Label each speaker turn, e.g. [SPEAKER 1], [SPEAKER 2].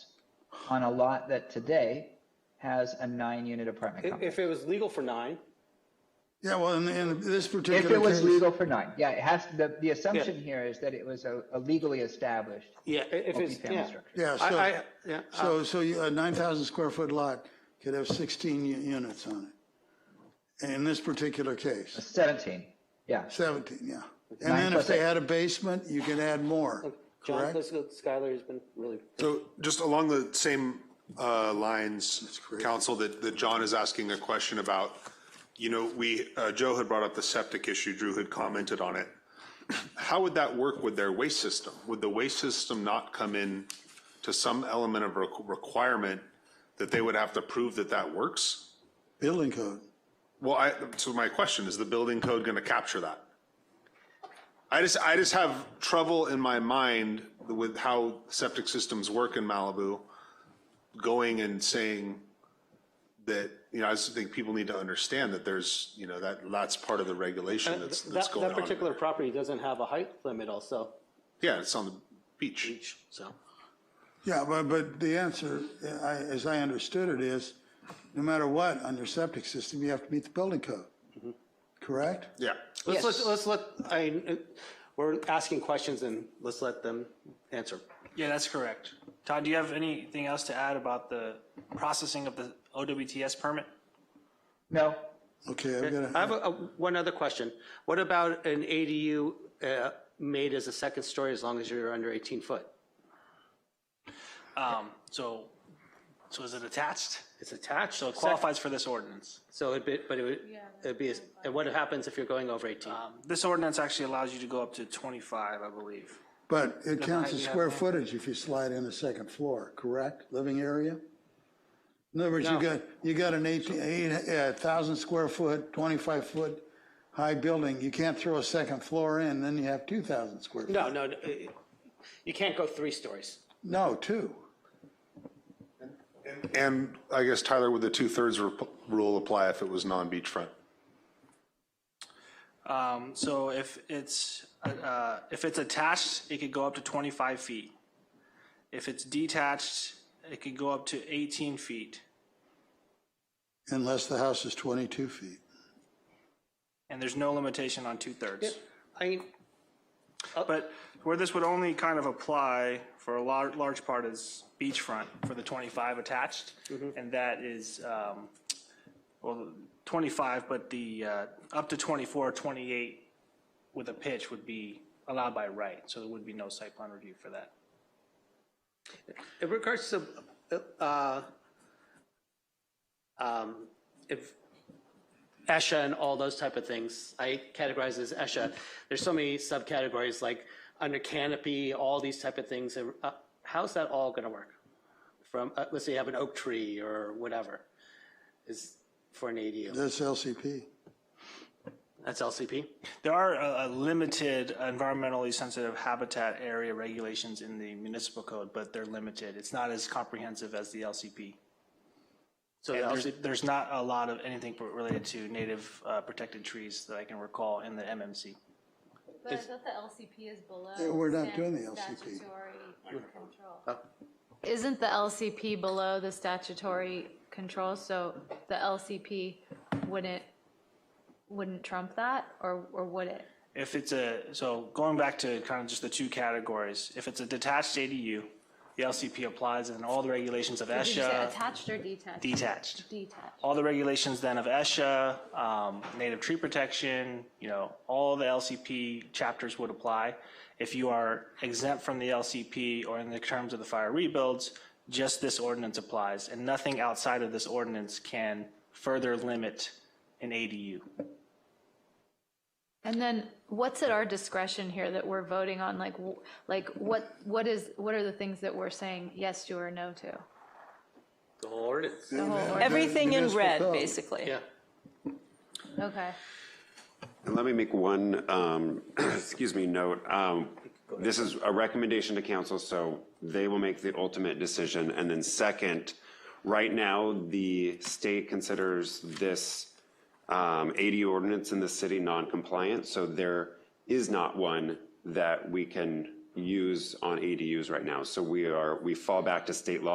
[SPEAKER 1] on a lot that today has a nine-unit apartment
[SPEAKER 2] If,
[SPEAKER 1] complex.
[SPEAKER 2] if it was legal for nine,
[SPEAKER 3] Yeah, well, in, in this particular
[SPEAKER 1] If
[SPEAKER 3] case.
[SPEAKER 1] it was legal for nine, yeah, it has, the, the assumption here is that it was a a legally established
[SPEAKER 2] yeah, i- if it's,
[SPEAKER 1] multifamily
[SPEAKER 2] yeah.
[SPEAKER 1] structure.
[SPEAKER 3] Yeah,
[SPEAKER 2] I, I,
[SPEAKER 3] so,
[SPEAKER 2] yeah, uh,
[SPEAKER 3] so, so you- a 9,000 square foot lot could have 16 u- units on it. In this particular case,
[SPEAKER 1] 17, yeah.
[SPEAKER 3] 17, yeah. And
[SPEAKER 1] Nine
[SPEAKER 3] then if
[SPEAKER 1] plus
[SPEAKER 3] they
[SPEAKER 1] eight.
[SPEAKER 3] had a basement, you could add more,
[SPEAKER 2] John,
[SPEAKER 3] correct?
[SPEAKER 2] Skylar has been really
[SPEAKER 4] So just along the same uh, lines,
[SPEAKER 3] great.
[SPEAKER 4] council, that, that John is asking a question about, you know, we, uh, Joe had brought up the septic issue, Drew had commented on it. How would that work with their waste system? Would the waste system not come in to some element of requ- requirement that they would have to prove that that works?
[SPEAKER 3] Building code.
[SPEAKER 4] Well, I, so my question, is the building code going to capture that? I just, I just have trouble in my mind with how septic systems work in Malibu, going and saying that, you know, I just think people need to understand that there's, you know, that, that's part of the regulation that's, that's
[SPEAKER 2] Uh, That,
[SPEAKER 4] going on.
[SPEAKER 2] that particular property doesn't have a height limit also,
[SPEAKER 4] Yeah, it's on the beach.
[SPEAKER 2] so.
[SPEAKER 3] Yeah, but, but the answer, uh, I, as I understood it, is no matter what, on your septic system, you have to meet the building code,
[SPEAKER 1] Mm-hmm.
[SPEAKER 3] correct?
[SPEAKER 4] Yeah.
[SPEAKER 1] Yes.
[SPEAKER 2] Let's, let let's let, I, we're asking questions and let's let them answer.
[SPEAKER 5] Yeah, that's correct. Todd, do you have anything else to add about the processing of the OWTS permit?
[SPEAKER 1] No,
[SPEAKER 3] Okay, I've got
[SPEAKER 2] I have
[SPEAKER 3] to,
[SPEAKER 2] a, a- one other question. What about an ADU uh, made as a second story as long as you're under 18 foot?
[SPEAKER 5] Um, so, so is it attached?
[SPEAKER 2] It's attached,
[SPEAKER 5] So
[SPEAKER 2] so
[SPEAKER 5] it qualifies for this ordinance.
[SPEAKER 2] so it'd be, but it would, it'd be, as- and what happens if you're going over 18?
[SPEAKER 5] This ordinance actually allows you to go up to twenty-five, I believe.
[SPEAKER 3] but it counts as
[SPEAKER 5] you have
[SPEAKER 3] square
[SPEAKER 5] that.
[SPEAKER 3] footage if you slide in a second floor, correct? Living area? In other words, you got, you got an eighteen, eight, uh thousand square foot, twenty-five foot high building, you can't throw a second floor in, then you have two thousand square. feet.
[SPEAKER 2] No, no, no, uh, you can't go three stories.
[SPEAKER 3] No, two.
[SPEAKER 4] And I guess Tyler, would the two-thirds rep- rule apply if it was non-beachfront?
[SPEAKER 5] Um, so if it's, uh, uh, if it's attached, it could go up to twenty-five feet. If it's detached, it could go up to eighteen feet.
[SPEAKER 3] Unless the house is twenty-two feet.
[SPEAKER 5] And there's no limitation on two-thirds.
[SPEAKER 2] I mean,
[SPEAKER 5] But where this would only kind of apply for a large, large part is beachfront for the 25 attached. And that is, um, well, 25, but the, uh, up to 24, 28 with a pitch would be allowed by right. So there would be no site plan review for that.
[SPEAKER 2] in regards to, uh, um, if ESHA and all those type of things, I categorize as ESHA. There's so many subcategories, like under canopy, all these type of things. and, uh, How's that all going to work? From, uh, let's say you have an oak tree or whatever, is for an ADU.
[SPEAKER 3] That's LCP.
[SPEAKER 2] That's LCP?
[SPEAKER 5] There are a, a limited environmentally sensitive habitat area regulations in the municipal code, but they're limited. It's not as comprehensive as the LCP.
[SPEAKER 2] So
[SPEAKER 5] And
[SPEAKER 2] the
[SPEAKER 5] there's,
[SPEAKER 2] LCP
[SPEAKER 5] there's not a lot of anything related to native uh, protected trees that I can recall in the MMC.
[SPEAKER 6] But I thought the LCP is below.
[SPEAKER 3] Yeah, we're not
[SPEAKER 6] stat-
[SPEAKER 3] doing the LCP.
[SPEAKER 6] Statutory control. Isn't the LCP below the statutory control, so the LCP wouldn't, wouldn't trump that, or, or would it?
[SPEAKER 5] If it's a, so going back to kind of just the two categories, if it's a detached ADU, the LCP applies and all the regulations of
[SPEAKER 6] Did you say
[SPEAKER 5] ESHA,
[SPEAKER 6] attached or detached?
[SPEAKER 5] detached.
[SPEAKER 6] Detached.
[SPEAKER 5] All the regulations then of ESHA, um, native tree protection, you know, all the LCP chapters would apply. If you are exempt from the LCP or in the terms of the fire rebuilds, just this ordinance applies and nothing outside of this ordinance can further limit an ADU.
[SPEAKER 6] And then what's at our discretion here that we're voting on? Like, w- like what, what is, what are the things that we're saying yes to or no to?
[SPEAKER 2] the whole ordinance.
[SPEAKER 6] The whole order?
[SPEAKER 7] Everything in
[SPEAKER 3] municipal
[SPEAKER 7] red,
[SPEAKER 3] code.
[SPEAKER 7] basically.
[SPEAKER 2] Yeah.
[SPEAKER 6] Okay.
[SPEAKER 8] And let me make one, um, excuse me, note. Um, This is a recommendation to council, so they will make the ultimate decision. And then second, right now, the state considers this um, ADU ordinance in the city non-compliant, so there is not one that we can use on ADUs right now. So we are, we fall back to state law